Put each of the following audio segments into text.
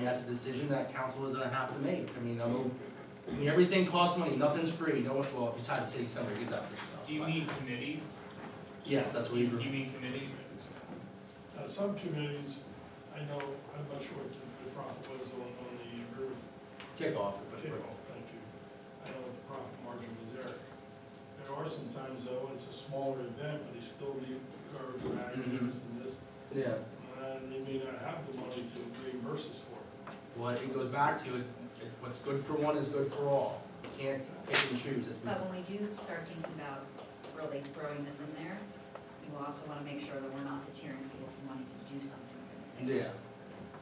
And that's a decision that council is gonna have to make. I mean, I'm, I mean, everything costs money, nothing's free, no one, well, besides the city center, get that fixed up. Do you but- need committees? Yes, that's what we, Do you were- need committees? Uh, some communities, I know, I'm not sure what the- the profit was on, on the roof kickoff. kickoff, thank you. I know what the profit margin was there. There are some times though, it's a smaller event, but they still need garbage bags Mhm. and this and this, Yeah, and they may not have the money to reimburse us for it. what it goes back to, it's, it- what's good for one is good for all. You can't pick and choose, it's, But when we do start thinking about really throwing this in there, you also wanna make sure that we're not deterring people from wanting to do something for the city. yeah.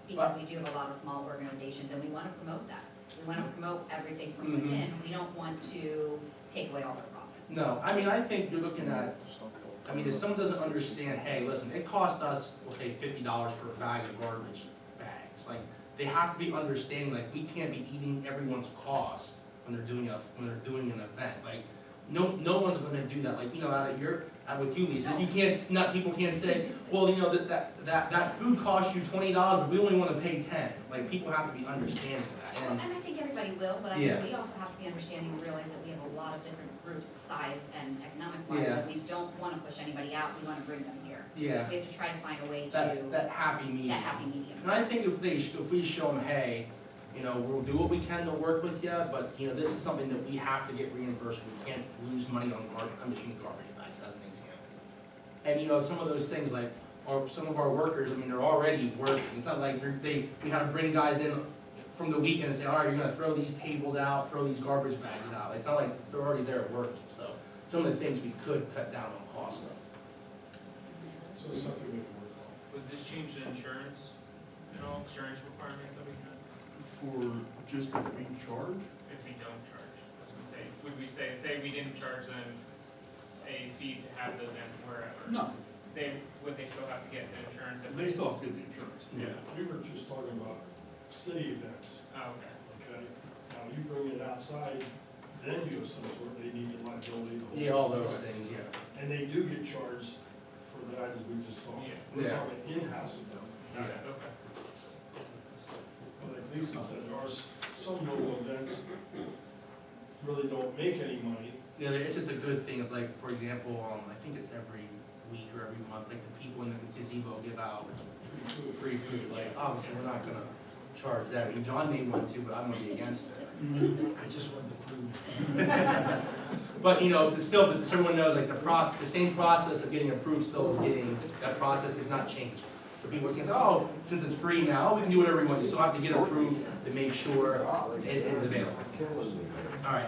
Because we do have a lot of small organizations and we wanna promote that. We wanna promote everything from Mhm. within. We don't want to take away all their profit. No, I mean, I think you're looking at, I mean, if someone doesn't understand, hey, listen, it cost us, we'll say fifty dollars for a bag of garbage bags, like, they have to be understanding, like, we can't be eating everyone's cost when they're doing a, when they're doing an event, like, no, no one's gonna do that, like, you know, out of your, out with you, Lisa, you can't, not, people can't say, well, you know, that, that, that, that food cost you twenty dollars, but we only wanna pay ten, like, people have to be understanding of that, And and, I think everybody will, but I Yeah. think we also have to be understanding and realize that we have a lot of different groups, size and economic wise, Yeah. that we don't wanna push anybody out. We wanna bring them here. So yeah, we have to try to find a way to, that, that that happy medium. happy medium. And I think if they, if we show them, hey, you know, we'll do what we can to work with you, but, you know, this is something that we have to get reimbursed, we can't lose money on garbage, I'm just using garbage bags as an example. And, you know, some of those things, like, or some of our workers, I mean, they're already working, it's not like they're, they, we have to bring guys in from the weekend and say, all right, you're gonna throw these tables out, throw these garbage bags out, it's not like they're already there working, so, some of the things we could cut down on cost of. So it's something we can work on. Would this change the insurance, you know, insurance requirements that we have For just if we charge? if we don't charge? I was gonna say, would we say, say we didn't charge them a fee to have the event wherever? No. They, would they still have to get the insurance? if- They still have to get the insurance. We were just talking about city events, Oh, okay. okay? Now, you bring it outside, then you have some sort, they need the liability. to hold. Yeah, all those things, yeah. And they do get charged for the items we just talked. Yeah. We're Yeah. talking in-house though. Yeah. Okay. But like Lisa said, there are s- some local events really don't make any money. Yeah, there- it's just a good thing, it's like, for example, um, I think it's every week or every month, like, the people in the gazebo give out free food, like, obviously, we're not gonna charge that, I mean, John may want to, but I'm gonna be against it. Mm-hmm. I just wanted to prove. But, you know, but still, but so everyone knows, like, the process, the same process of getting approved still is getting, that process is not changed. So people can say, oh, since it's free now, we can do whatever we want, you still have to get approved to make sure it is available. All right,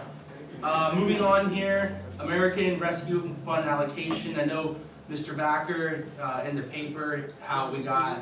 uh, moving on here, American Rescue Fund allocation, I know Mr. Backer, uh, in the paper, how we got,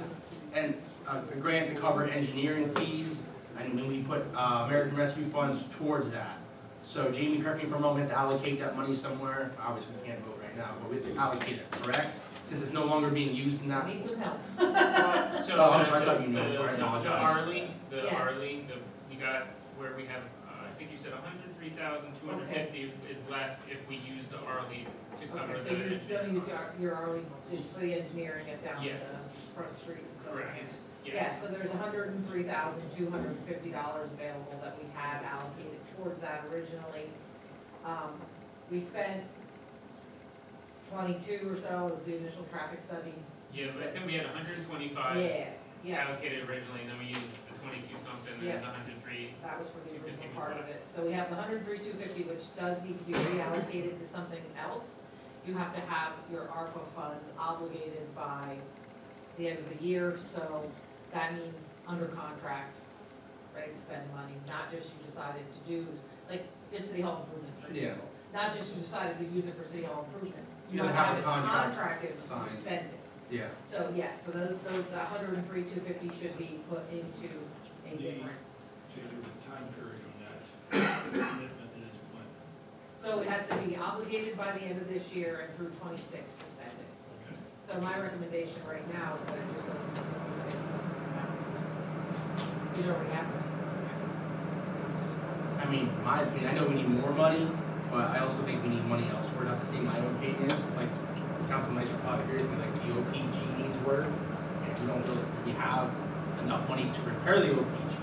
and, uh, a grant to cover engineering fees, and then we put, uh, American Rescue Funds towards that. So Jamie, correct me if I'm wrong, we have to allocate that money somewhere, obviously we can't vote right now, but we have to allocate it, correct? Since it's no longer being used in that, Need some help. Uh, So, Oh, I'm sorry, I the- thought you knew. the- Sorry, I the- The apologize. Arlene, the Yeah. Arlene, the, you got where we have, uh, I think you said hundred three thousand two hundred fifty is left if we use the Arlene to cover Okay, the. so you're gonna use our, your hourly, just for the engineering and down Yes. the front street and stuff. Correct, Yeah, yes. so there's hundred and three thousand, two hundred and fifty dollars available that we had allocated towards that originally. Um, we spent twenty-two or so, was the initial traffic study. Yeah, but I think we had hundred and twenty-five Yeah, yeah, allocated originally, and then we used the twenty-two something, and then the hundred three. that was for the original part of it. So we have the hundred and three, two fifty, which does need to be reallocated to something else. You have to have your ARPA funds obligated by the end of the year, so that means under contract, ready to spend money, not just you decided to do, like, your city hall improvements. for Yeah. example. Not just you decided to use it for city hall improvements. You gotta must have a contract Contracted, you signed. spend it. yeah. So, yes, so those, those, the hundred and three, two fifty should be put into a Yeah. different. Change the time period on that. Commitment is when, So it has to be obligated by the end of this year and through twenty-six to spend it. okay? So my recommendation right now is that just go to twenty-six. These already happened. I mean, my opinion, I know we need more money, but I also think we need money elsewhere, not to say my own opinion is, like, Council Nice will probably agree with me, like, the OPG needs work. And we don't really, do we have enough money to repair the opening,